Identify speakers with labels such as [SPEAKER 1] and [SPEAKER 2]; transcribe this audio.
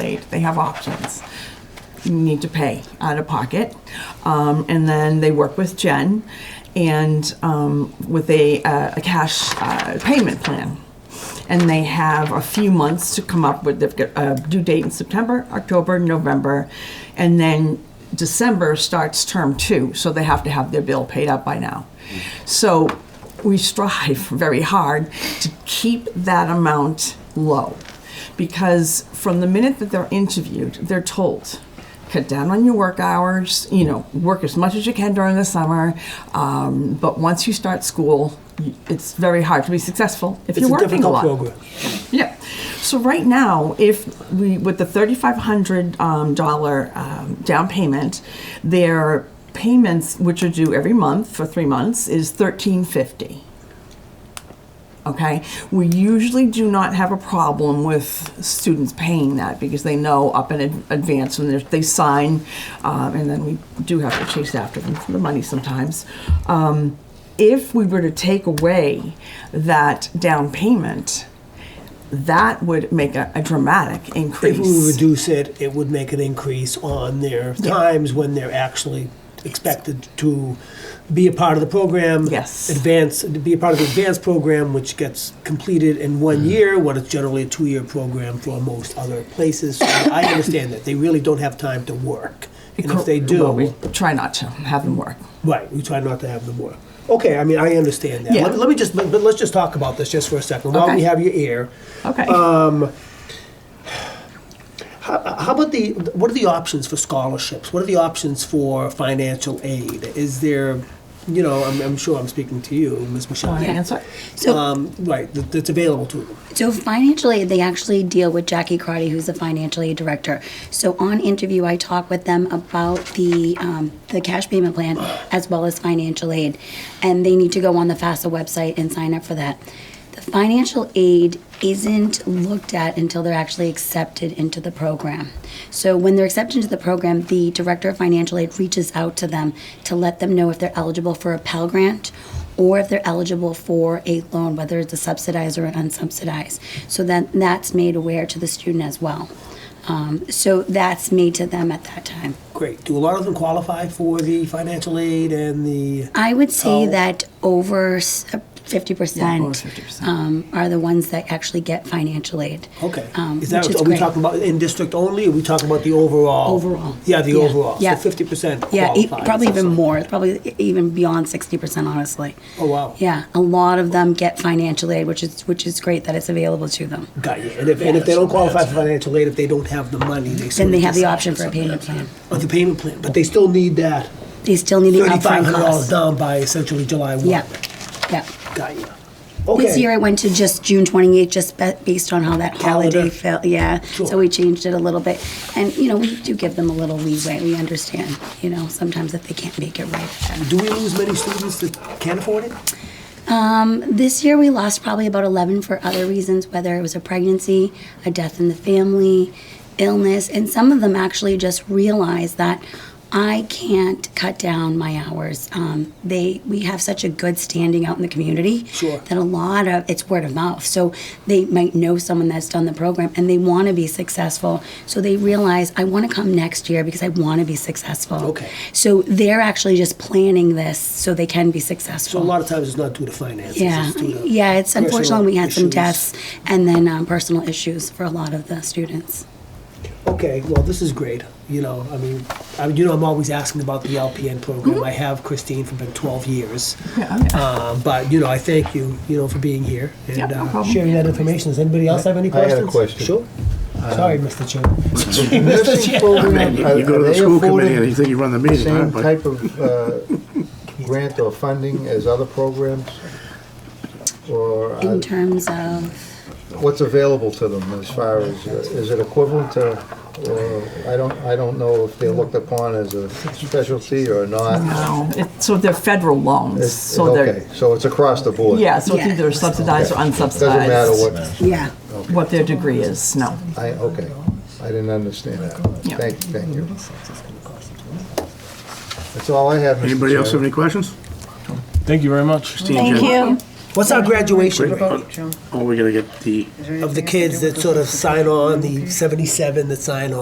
[SPEAKER 1] aid. They have options. You need to pay out of pocket. Um, and then they work with Jen and um, with a, uh, a cash uh, payment plan. And they have a few months to come up with, they've got a due date in September, October, November, and then December starts term two, so they have to have their bill paid up by now. So we strive very hard to keep that amount low because from the minute that they're interviewed, they're told, cut down on your work hours, you know, work as much as you can during the summer. Um, but once you start school, y- it's very hard to be successful if
[SPEAKER 2] It's
[SPEAKER 1] you're
[SPEAKER 2] a
[SPEAKER 1] working a
[SPEAKER 2] difficult
[SPEAKER 1] lot.
[SPEAKER 2] program.
[SPEAKER 1] Yeah. So right now, if we with the thirty-five hundred um, dollar um, down payment, their payments, which are due every month for three months, is thirteen fifty. Okay, we usually do not have a problem with students paying that because they know up in ad- advance when they're- they sign, um, and then we do have to chase after them for the money sometimes. Um, if we were to take away that down payment, that would make a, a dramatic increase.
[SPEAKER 2] If we reduce it, it would make an increase on their times when they're actually expected to be a part of the program.
[SPEAKER 1] Yes.
[SPEAKER 2] Advance, to be a part of the advanced program, which gets completed in one
[SPEAKER 1] Mm.
[SPEAKER 2] year, what is generally a two-year program for most other places. So I understand that. They really don't have time to work. And if they
[SPEAKER 1] Well, we
[SPEAKER 2] do,
[SPEAKER 1] try not to have them work.
[SPEAKER 2] right, we try not to have them work. Okay, I mean, I understand that.
[SPEAKER 1] Yeah.
[SPEAKER 2] Let let me just, but but let's just talk about this just for a second while we
[SPEAKER 1] Okay.
[SPEAKER 2] have your ear.
[SPEAKER 1] Okay.
[SPEAKER 2] Uh, How about the, what are the options for scholarships? What are the options for financial aid? Is there, you know, I'm, I'm sure I'm speaking to you, Ms. Michelle.
[SPEAKER 1] Want to answer?
[SPEAKER 3] So,
[SPEAKER 2] Um, right, that, that's available to them.
[SPEAKER 3] so financial aid, they actually deal with Jackie Crotty, who's the financial aid director. So on interview, I talk with them about the, um, the cash payment plan as well as financial aid. And they need to go on the FAFSA website and sign up for that. The financial aid isn't looked at until they're actually accepted into the program. So when they're accepted into the program, the director of financial aid reaches out to them to let them know if they're eligible for a Pell Grant or if they're eligible for a loan, whether it's a subsidized or an unsubsidized. So then that's made aware to the student as well. Um, so that's made to them at that time.
[SPEAKER 2] Great. Do a lot of them qualify for the financial aid and the,
[SPEAKER 3] I would say
[SPEAKER 2] Oh.
[SPEAKER 3] that over s- 50%,
[SPEAKER 1] Yeah, over 50%.
[SPEAKER 3] Um, are the ones that actually get financial aid.
[SPEAKER 2] okay.
[SPEAKER 3] Um,
[SPEAKER 2] Is that,
[SPEAKER 3] which is
[SPEAKER 2] are we
[SPEAKER 3] great.
[SPEAKER 2] talking about in district only? Or are we talking about the overall?
[SPEAKER 3] Overall.
[SPEAKER 2] Yeah, the
[SPEAKER 3] Yeah.
[SPEAKER 2] overall.
[SPEAKER 3] Yeah.
[SPEAKER 2] So 50%
[SPEAKER 3] Yeah, e-
[SPEAKER 2] qualifies.
[SPEAKER 3] probably even more, probably e- even beyond sixty percent, honestly.
[SPEAKER 2] Oh, wow.
[SPEAKER 3] Yeah, a lot of them get financial aid, which is, which is great that it's available to them.
[SPEAKER 2] Got you. And if, and if they don't qualify for financial aid, if they don't have the money, they sort
[SPEAKER 3] Then
[SPEAKER 2] of
[SPEAKER 3] they have the
[SPEAKER 2] decide-
[SPEAKER 3] option for a payment plan.
[SPEAKER 2] Or the payment plan, but they still need that
[SPEAKER 3] They still need the
[SPEAKER 2] thirty-five
[SPEAKER 3] upfront
[SPEAKER 2] hundred dollars
[SPEAKER 3] cost.
[SPEAKER 2] down by essentially July one.
[SPEAKER 3] Yeah, yeah.
[SPEAKER 2] Got you.
[SPEAKER 3] This year
[SPEAKER 2] Okay,
[SPEAKER 3] I went to just June twenty-eighth, just be- based on how that holiday
[SPEAKER 2] Calendar.
[SPEAKER 3] fell, yeah.
[SPEAKER 2] Sure.
[SPEAKER 3] So we changed it a little bit. And, you know, we do give them a little leeway, we understand, you know, sometimes if they can't make it right. then.
[SPEAKER 2] do we lose many students that can't afford it?
[SPEAKER 3] This year, we lost probably about 11 for other reasons, whether it was a pregnancy, a death in the family, illness, and some of them actually just realized that I can't cut down my hours. Um, they we have such a good standing out in the community
[SPEAKER 2] Sure.
[SPEAKER 3] that a lot of it's word of mouth. So they might know someone that's done the program and they want to be successful. So they realize I want to come next year because I want to be successful.
[SPEAKER 2] Okay.
[SPEAKER 3] So they're actually just planning this so they can be
[SPEAKER 2] So
[SPEAKER 3] successful.
[SPEAKER 2] a lot of times it's not due to finances.
[SPEAKER 3] Yeah,
[SPEAKER 2] it's due to
[SPEAKER 3] yeah. It's
[SPEAKER 2] personal
[SPEAKER 3] unfortunately we had some
[SPEAKER 2] issues.
[SPEAKER 3] deaths and then um, personal issues for a lot of the students.
[SPEAKER 2] Okay, well, this is great, you know, I mean, I mean, you know, I'm always asking about the LPN
[SPEAKER 3] Mm-hmm.
[SPEAKER 2] program. I have Christine for been twelve years.
[SPEAKER 1] Yeah.
[SPEAKER 2] Uh, But, you know, I thank you, you know, for being here
[SPEAKER 1] Yeah,
[SPEAKER 2] and
[SPEAKER 1] no
[SPEAKER 2] uh,
[SPEAKER 1] problem.
[SPEAKER 2] sharing that information. Does anybody else have any
[SPEAKER 4] I had a
[SPEAKER 2] questions?
[SPEAKER 4] question. Uh,
[SPEAKER 2] Sure. Sorry, Mr. Chair.
[SPEAKER 4] Nursing program,
[SPEAKER 5] You go
[SPEAKER 4] are
[SPEAKER 5] to the
[SPEAKER 4] they
[SPEAKER 5] school committee and
[SPEAKER 4] afforded
[SPEAKER 5] you think you run the
[SPEAKER 4] the
[SPEAKER 5] meeting, huh?
[SPEAKER 4] same
[SPEAKER 5] But
[SPEAKER 4] type of uh, grant or funding as other programs? Or uh,
[SPEAKER 3] In terms of,
[SPEAKER 4] what's available to them as far as, uh, is it equivalent to, or, I don't, I don't know if they're looked upon as a specialty or not.
[SPEAKER 1] No, it, so they're federal loans.
[SPEAKER 4] It's-
[SPEAKER 1] so they're
[SPEAKER 4] Okay, so it's across the board?
[SPEAKER 1] yeah. So it's
[SPEAKER 3] Yeah.
[SPEAKER 1] either subsidized or unsubsidized.
[SPEAKER 4] Doesn't matter what,
[SPEAKER 3] yeah,
[SPEAKER 1] what their degree is. No.
[SPEAKER 4] I, okay, I didn't understand that.
[SPEAKER 1] Yeah.
[SPEAKER 4] Thank, thank you. That's all I have, Mr.
[SPEAKER 5] Anybody else have
[SPEAKER 4] Chairman.
[SPEAKER 5] any questions?
[SPEAKER 6] Thank you very much.
[SPEAKER 5] Thank you.
[SPEAKER 2] What's our graduation rate
[SPEAKER 5] Oh, we're gonna get the.
[SPEAKER 2] of the kids that sort of sign on, the 77 that sign on?